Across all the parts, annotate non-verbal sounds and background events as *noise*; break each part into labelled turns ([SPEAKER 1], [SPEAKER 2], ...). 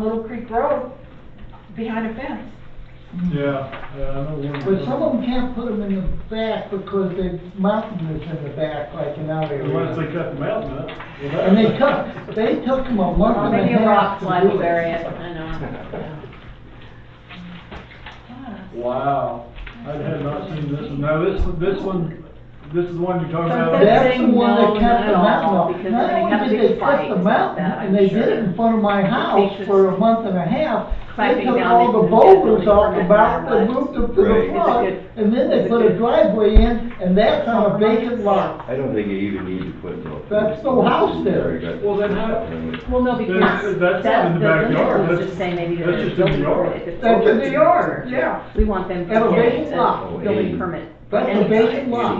[SPEAKER 1] Little Creek Road, behind a fence.
[SPEAKER 2] Yeah, yeah, I know one.
[SPEAKER 3] But some of them can't put them in the back because the mountain is in the back, like in our area.
[SPEAKER 2] Unless they cut the mountain up. well, that-
[SPEAKER 3] And they took, they took them a month and
[SPEAKER 4] Maybe
[SPEAKER 3] a
[SPEAKER 4] a rock
[SPEAKER 3] half
[SPEAKER 4] slide
[SPEAKER 3] to
[SPEAKER 4] will
[SPEAKER 3] do
[SPEAKER 4] bury
[SPEAKER 3] it.
[SPEAKER 4] it, I know.
[SPEAKER 2] Wow, I had not seen this one. Now, this, this one, this is the one you're talking about.
[SPEAKER 4] Sunset
[SPEAKER 2] Yeah,
[SPEAKER 3] That's the one
[SPEAKER 4] No,
[SPEAKER 3] that cut
[SPEAKER 4] not at
[SPEAKER 3] the mountain
[SPEAKER 4] all,
[SPEAKER 3] off.
[SPEAKER 4] because
[SPEAKER 3] Not
[SPEAKER 4] they
[SPEAKER 3] only
[SPEAKER 4] have big
[SPEAKER 3] did they cut the
[SPEAKER 4] fights about
[SPEAKER 3] mountain,
[SPEAKER 4] that,
[SPEAKER 3] and
[SPEAKER 4] I'm
[SPEAKER 3] they did
[SPEAKER 4] sure.
[SPEAKER 3] it in front of my house
[SPEAKER 4] pictures
[SPEAKER 3] for a month and a half. They
[SPEAKER 4] clamping
[SPEAKER 3] took
[SPEAKER 4] down
[SPEAKER 3] all
[SPEAKER 4] the-
[SPEAKER 3] the boulders
[SPEAKER 4] the
[SPEAKER 3] off the
[SPEAKER 4] building
[SPEAKER 3] back,
[SPEAKER 4] permit,
[SPEAKER 3] they moved them to the
[SPEAKER 5] Right.
[SPEAKER 3] front,
[SPEAKER 4] It's a good-
[SPEAKER 3] and then they
[SPEAKER 4] it's a
[SPEAKER 3] put a
[SPEAKER 4] good-
[SPEAKER 3] driveway in, and that's on a vacant lot.
[SPEAKER 5] I don't think you even need to put no.
[SPEAKER 3] That's no house there.
[SPEAKER 2] Well, then how-
[SPEAKER 4] Well, no, because
[SPEAKER 2] That's- that's
[SPEAKER 4] that,
[SPEAKER 2] in
[SPEAKER 4] the
[SPEAKER 2] the backyard.
[SPEAKER 4] limit was
[SPEAKER 2] That's-
[SPEAKER 4] just saying maybe that
[SPEAKER 2] that's
[SPEAKER 4] there's
[SPEAKER 2] just in
[SPEAKER 4] building
[SPEAKER 2] the yard.
[SPEAKER 4] permit. if it's
[SPEAKER 3] That's in
[SPEAKER 4] building
[SPEAKER 3] the yard,
[SPEAKER 4] permit.
[SPEAKER 3] yeah.
[SPEAKER 4] We want them to
[SPEAKER 3] That's a
[SPEAKER 4] get
[SPEAKER 3] vacant
[SPEAKER 4] a
[SPEAKER 3] lot.
[SPEAKER 4] building permit.
[SPEAKER 3] That's a
[SPEAKER 4] Anyway.
[SPEAKER 3] vacant lot.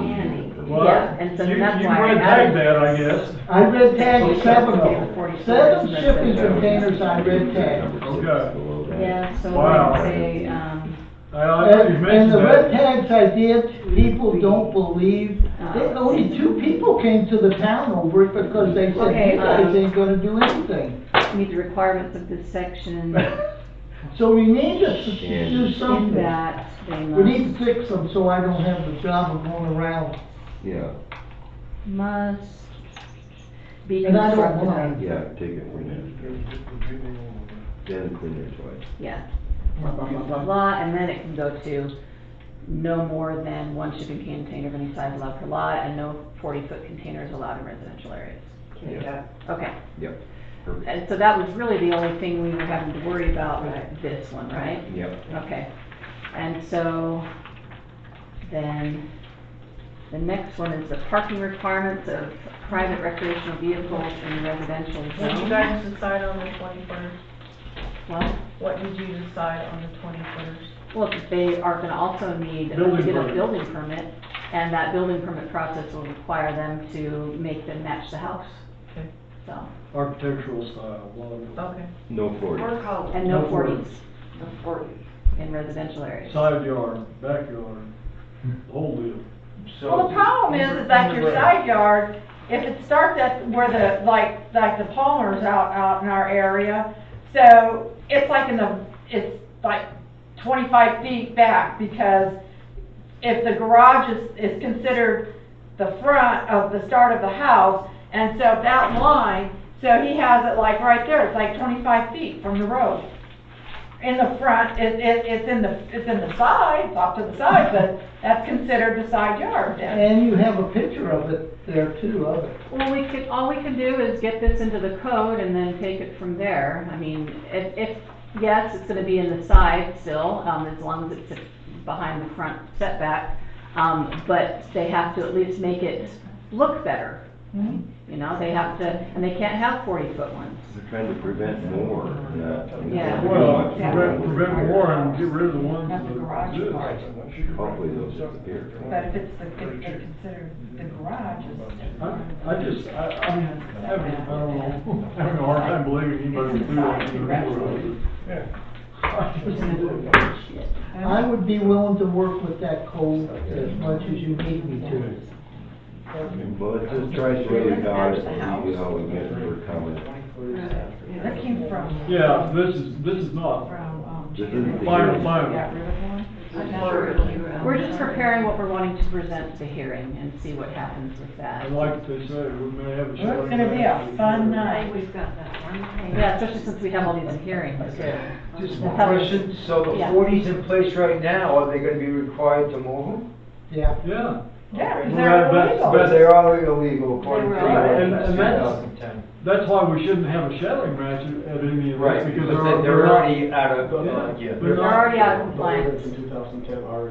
[SPEAKER 2] Well,
[SPEAKER 4] Yeah, and so
[SPEAKER 2] you-
[SPEAKER 4] that's
[SPEAKER 2] you
[SPEAKER 4] why I
[SPEAKER 2] red
[SPEAKER 4] added-
[SPEAKER 2] tagged that, I guess.
[SPEAKER 3] I red
[SPEAKER 4] Well,
[SPEAKER 3] tagged
[SPEAKER 4] you
[SPEAKER 3] seven
[SPEAKER 4] have to pay
[SPEAKER 3] of
[SPEAKER 4] the 40
[SPEAKER 3] them, seven
[SPEAKER 4] cents.
[SPEAKER 3] shipping containers I red tagged.
[SPEAKER 2] Okay.
[SPEAKER 4] Yeah, so
[SPEAKER 2] Wow.
[SPEAKER 4] I'd say, um,
[SPEAKER 2] I, I, you
[SPEAKER 3] And and
[SPEAKER 2] mentioned
[SPEAKER 3] the red
[SPEAKER 2] that.
[SPEAKER 3] tags I did, people don't believe, There- only two people came to the town over it because they said,
[SPEAKER 4] Okay,
[SPEAKER 3] you guys
[SPEAKER 4] um,
[SPEAKER 3] ain't gonna do anything.
[SPEAKER 4] meet the requirements of this section,
[SPEAKER 3] So we need to s-
[SPEAKER 5] Yeah.
[SPEAKER 3] do
[SPEAKER 4] in
[SPEAKER 3] something.
[SPEAKER 4] that they
[SPEAKER 3] We need
[SPEAKER 4] must,
[SPEAKER 3] to fix them so I don't have the job of going around.
[SPEAKER 5] Yeah,
[SPEAKER 4] must be
[SPEAKER 3] And I don't
[SPEAKER 4] constructed.
[SPEAKER 3] mind.
[SPEAKER 5] yeah, take it from there. Then clean it twice.
[SPEAKER 4] Yeah, blah, blah, blah, blah, blah, and then it can go to no more than one shipping container of any size allowed per lot, and no forty-foot containers allowed in residential areas.
[SPEAKER 5] Yeah.
[SPEAKER 4] Okay,
[SPEAKER 5] Yep. Perfect.
[SPEAKER 4] and so that was really the only thing we were having to worry about with this one, right?
[SPEAKER 5] Yep.
[SPEAKER 4] Okay, and so then the next one is the parking requirements of private recreational vehicles in residential
[SPEAKER 6] What did you
[SPEAKER 4] zones.
[SPEAKER 6] guys decide on the twenty-first?
[SPEAKER 4] Well,
[SPEAKER 6] What did you decide on the twenty-first?
[SPEAKER 4] Well, they are gonna also need to
[SPEAKER 2] Building
[SPEAKER 4] get a
[SPEAKER 2] permit.
[SPEAKER 4] building permit, and that building permit process will require them to make them match the house.
[SPEAKER 6] Okay.
[SPEAKER 4] So,
[SPEAKER 2] Architectural style, blah,
[SPEAKER 6] Okay.
[SPEAKER 5] No forty.
[SPEAKER 4] and no
[SPEAKER 2] No forties.
[SPEAKER 4] forties in residential areas.
[SPEAKER 2] side yard, backyard, whole deal.
[SPEAKER 1] Well, the problem is, is like your side yard, if it starts at where the, like, like the Palmer's out, out in our area, so it's like in the, it's like twenty-five feet back, because if the garage is, is considered the front of the start of the house, and so that line, so he has it like right there, it's like twenty-five feet from the road. In the front, it, it, it's in the, it's in the side, it's off to the side, but that's considered the side yard then.
[SPEAKER 3] And you have a picture of it there too, of it.
[SPEAKER 4] Well, we could, all we can do is get this into the code and then take it from there. I mean, if, if, yes, it's gonna be in the side still, um, as long as it's behind the front setback. Um, but they have to at least make it look better. You know, they have to, and they can't have forty-foot ones.
[SPEAKER 5] They're trying to prevent more, not. I mean,
[SPEAKER 4] Yeah.
[SPEAKER 2] Well,
[SPEAKER 5] yeah.
[SPEAKER 2] prevent, prevent war and get rid of the ones
[SPEAKER 1] Not the
[SPEAKER 2] that
[SPEAKER 1] garage part.
[SPEAKER 2] exist.
[SPEAKER 5] Hopefully those disappear.
[SPEAKER 1] But if it's the, if they consider the garage is.
[SPEAKER 2] I, I just, I, I'm having, I don't know, having a hard time believing anybody would do that. in the neighborhood.
[SPEAKER 3] I would be willing to work with that code as much as you need me to.
[SPEAKER 5] Well, let's just try to get it out, and see how we get for comment.
[SPEAKER 1] That came from.
[SPEAKER 2] Yeah, this is, this is not,
[SPEAKER 1] From, um.
[SPEAKER 5] This isn't the
[SPEAKER 2] final,
[SPEAKER 5] hearing.
[SPEAKER 2] final.
[SPEAKER 1] Got rid of one.
[SPEAKER 4] We're just preparing what we're wanting to present to hearing and see what happens with
[SPEAKER 2] I
[SPEAKER 4] that.
[SPEAKER 2] like they say, we may have a.
[SPEAKER 1] Well, it's gonna be a fun night.
[SPEAKER 7] We've got that one.
[SPEAKER 4] Yeah, especially since we have all these hearings too.
[SPEAKER 8] Just one question, so the
[SPEAKER 4] Yeah.
[SPEAKER 8] forties in place right now, are they gonna be required to move them?
[SPEAKER 3] Yeah.
[SPEAKER 2] Yeah,
[SPEAKER 1] Yeah,
[SPEAKER 2] Well,
[SPEAKER 1] is there
[SPEAKER 2] that- that's-
[SPEAKER 1] illegal?
[SPEAKER 2] But-
[SPEAKER 8] But they are illegal according to the
[SPEAKER 7] They were.
[SPEAKER 2] And-
[SPEAKER 8] ordinance
[SPEAKER 2] and
[SPEAKER 8] two
[SPEAKER 2] that's-
[SPEAKER 8] thousand ten.
[SPEAKER 2] that's why we shouldn't have a shouting match at- at any of
[SPEAKER 8] Right,
[SPEAKER 2] this,
[SPEAKER 8] because
[SPEAKER 2] because
[SPEAKER 8] they-
[SPEAKER 2] there
[SPEAKER 8] they're
[SPEAKER 2] are.
[SPEAKER 8] already out of, uh,
[SPEAKER 2] Yeah.
[SPEAKER 8] yeah.
[SPEAKER 2] They're
[SPEAKER 4] They're already out of compliance.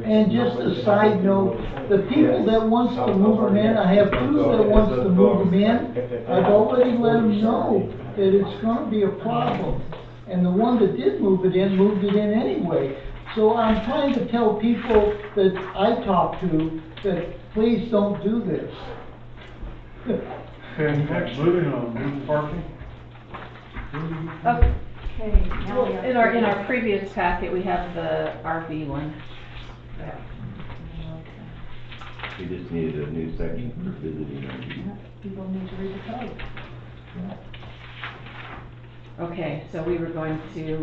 [SPEAKER 3] And just a side note, the people that wants to move them in, I have two that wants to move them in. I've already let them know that it's gonna be a problem. And the one that did move it in, moved it in anyway. So I'm trying to tell people that I talk to, that please don't do this. *laughs*
[SPEAKER 2] Moving on, moving parking.
[SPEAKER 4] Okay.
[SPEAKER 7] Okay, now
[SPEAKER 4] Well,
[SPEAKER 7] we have.
[SPEAKER 4] in our, in our previous packet, we have the RV one.
[SPEAKER 5] We just needed a new section for visiting.
[SPEAKER 1] People need to read the code.
[SPEAKER 4] Okay, so we were going to